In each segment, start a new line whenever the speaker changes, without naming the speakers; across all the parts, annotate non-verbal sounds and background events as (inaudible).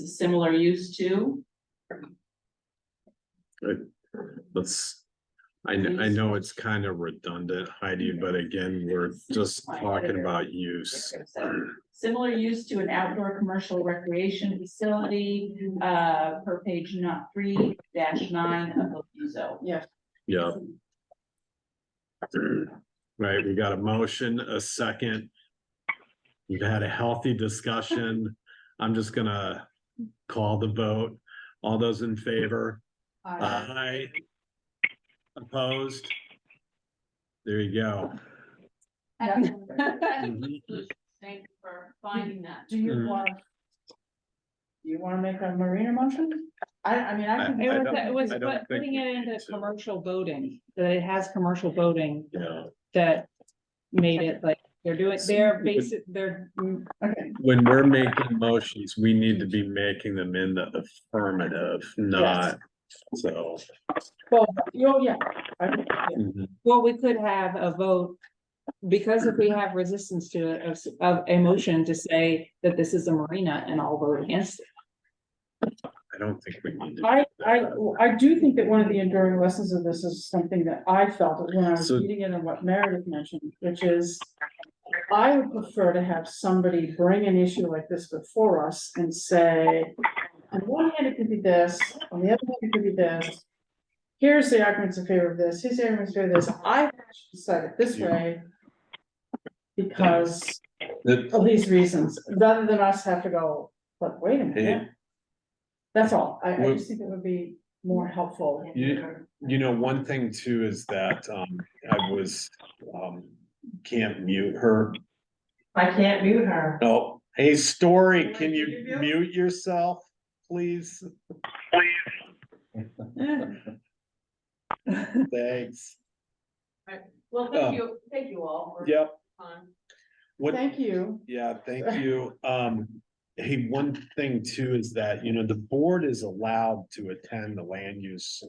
is similar use to.
Let's, I know, I know it's kind of redundant, Heidi, but again, we're just talking about use.
Similar use to an outdoor commercial recreation facility, uh, per page not three dash nine of the view zone.
Yeah. Right, we got a motion, a second. We've had a healthy discussion. I'm just gonna call the vote. All those in favor? Aye. Opposed? There you go.
(laughs) Thank
Mhm.
you for finding that.
Do you
Mm.
want? Do you wanna make a marina motion? I, I mean, I
I- I
can.
don't-
It was,
I
it
don't
was
think
putting
we
it into
need to.
commercial boating, that it has commercial boating
Yeah,
that made it like, they're doing, they're basic, they're mm,
Okay,
when we're making motions, we need to be making them in the affirmative, not, so.
well, you yeah. I think, yeah.
mhm.
Well, we could have a vote, because if we have resistance to it, of, s- of a motion to say that this is a marina and I'll vote against it.
I don't think we need to.
I, I, I do think that one of the enduring lessons of this is something that I felt when I was
So-
reading it and what Meredith mentioned, which is. I would prefer to have somebody bring an issue like this before us and say, on one hand, it could be this, on the other hand, it could be this. Here's the arguments in favor of this, here's the arguments in favor of this, I decided it this way. Because
That-
of these reasons, rather than us have to go, but wait a
Yeah.
minute. That's all, I, I
Well-
just think it would be more helpful.
You- You know, one thing too is that, um, I was, um, can't mute her.
I can't mute her.
Oh, hey, Story,
Can I
can you
interview?
mute yourself, please? Thanks.
Well,
thank
thank
Oh.
you, thank you all for
Yep. What,
Thank you.
Yeah, thank you. Um, hey, one thing too is that, you know, the board is allowed to attend the land use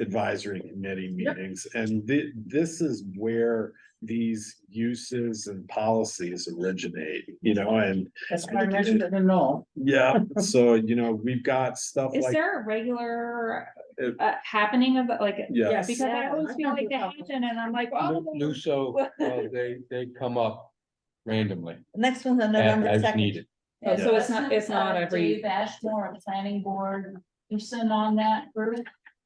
advisory committee meetings, and thi- this is where these uses and policies originate, you know, and
That's why I mentioned it in all.
yeah, (laughs) so, you know, we've got stuff
Is
like,
there a regular,
Uh,
uh, happening of, it? like,
yeah,
because I
Yeah,
always
I
feel
think
like
we
the
have-
Hampton and I'm like,
Lu-
oh.
Luso, uh, they, they come up randomly
Next one's on
a-
November
as
second.
needed.
Oh, so it's not- it's not
Uh,
every-
Dave Ashmore, planning board, person on that group,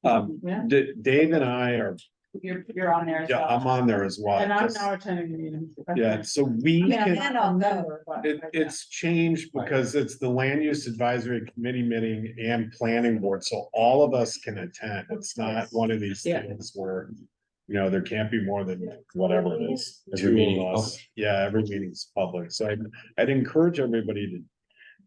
um,
Yeah.
D- Dave and I are,
you're, you're on there as
yeah, uh,
well.
I'm on there as well.
And I'm
just-
now attending the meeting.
Yeah, so we
I mean,
can.
I'm not a member,
It, it's changed
Right.
because it's the land use advisory committee meeting and planning board, so all of us can attend. It's not one of these
Yeah.
things where. You know, there can't be more than whatever it is,
Every
two
meeting's
of us. Yeah, every meeting's public, so I'd, I'd encourage everybody to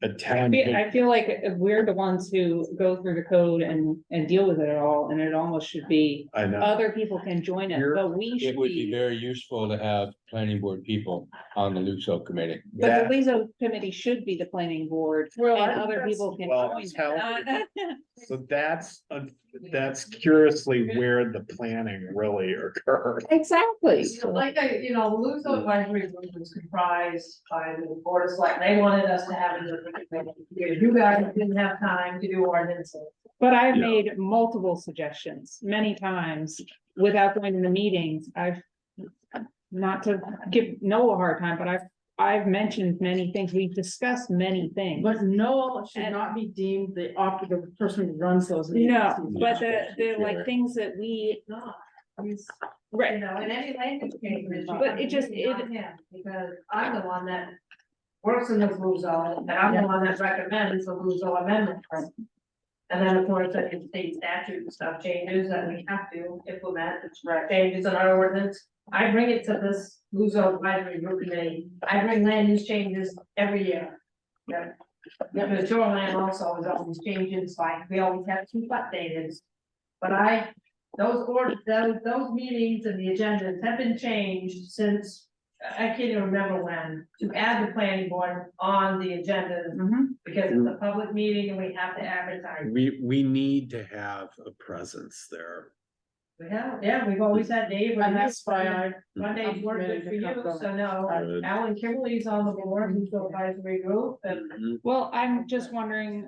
I
attend.
feel, I feel like we're the ones who go through the code and, and deal with it all, and it almost should be,
I know,
other people can join it,
You're-
but we
It
should
would be
be.
very useful to have planning board people on the Luso committee.
But
that,
the LISO committee should be the planning board,
Well,
and
I-
other people can
well,
join. it.
tell-
Uh,
so that's, uh, that's curiously where the planning really occurred.
(laughs) Exactly.
You know, Like, I- you know, Lou's advisory group was comprised by the board of select, they wanted us to have. it. You guys didn't have time to do ordinances.
But I've
Yeah.
made multiple suggestions, many times, without going to the meetings, I've. Not to give Noah a hard time, but I've, I've mentioned many things, we've discussed many things.
But Noel should not be deemed the op, the person who runs those meetings.
No, but the, the
Yeah.
like things that we,
Not, he's, you
right,
know, in any language change. it's
But it just- it-
on him, Because I'm the one that works in the blue zone, and I'm the one that recommends the blue zone amendment. And then, of course, that the state statute and stuff changes, and we have to implement the changes in our ordinance. I bring it to this blue zone advisory group committee, I bring land use changes every year. Yeah, the shoreline also is always changing, so I, we always have to keep updated. But I, those orders, those, those meetings and the agendas have been changed since, I can't even remember when, to add the planning board on the agenda. Because it's a public meeting and we have to advertise.
We, we need to have a presence there.
We have, yeah, we've always had Dave.
And that's why I,
Monday's worked good for you, so no,
Good.
Alan Kimberly's on the board, who's the advisory group, and
Mhm.
well, I'm just wondering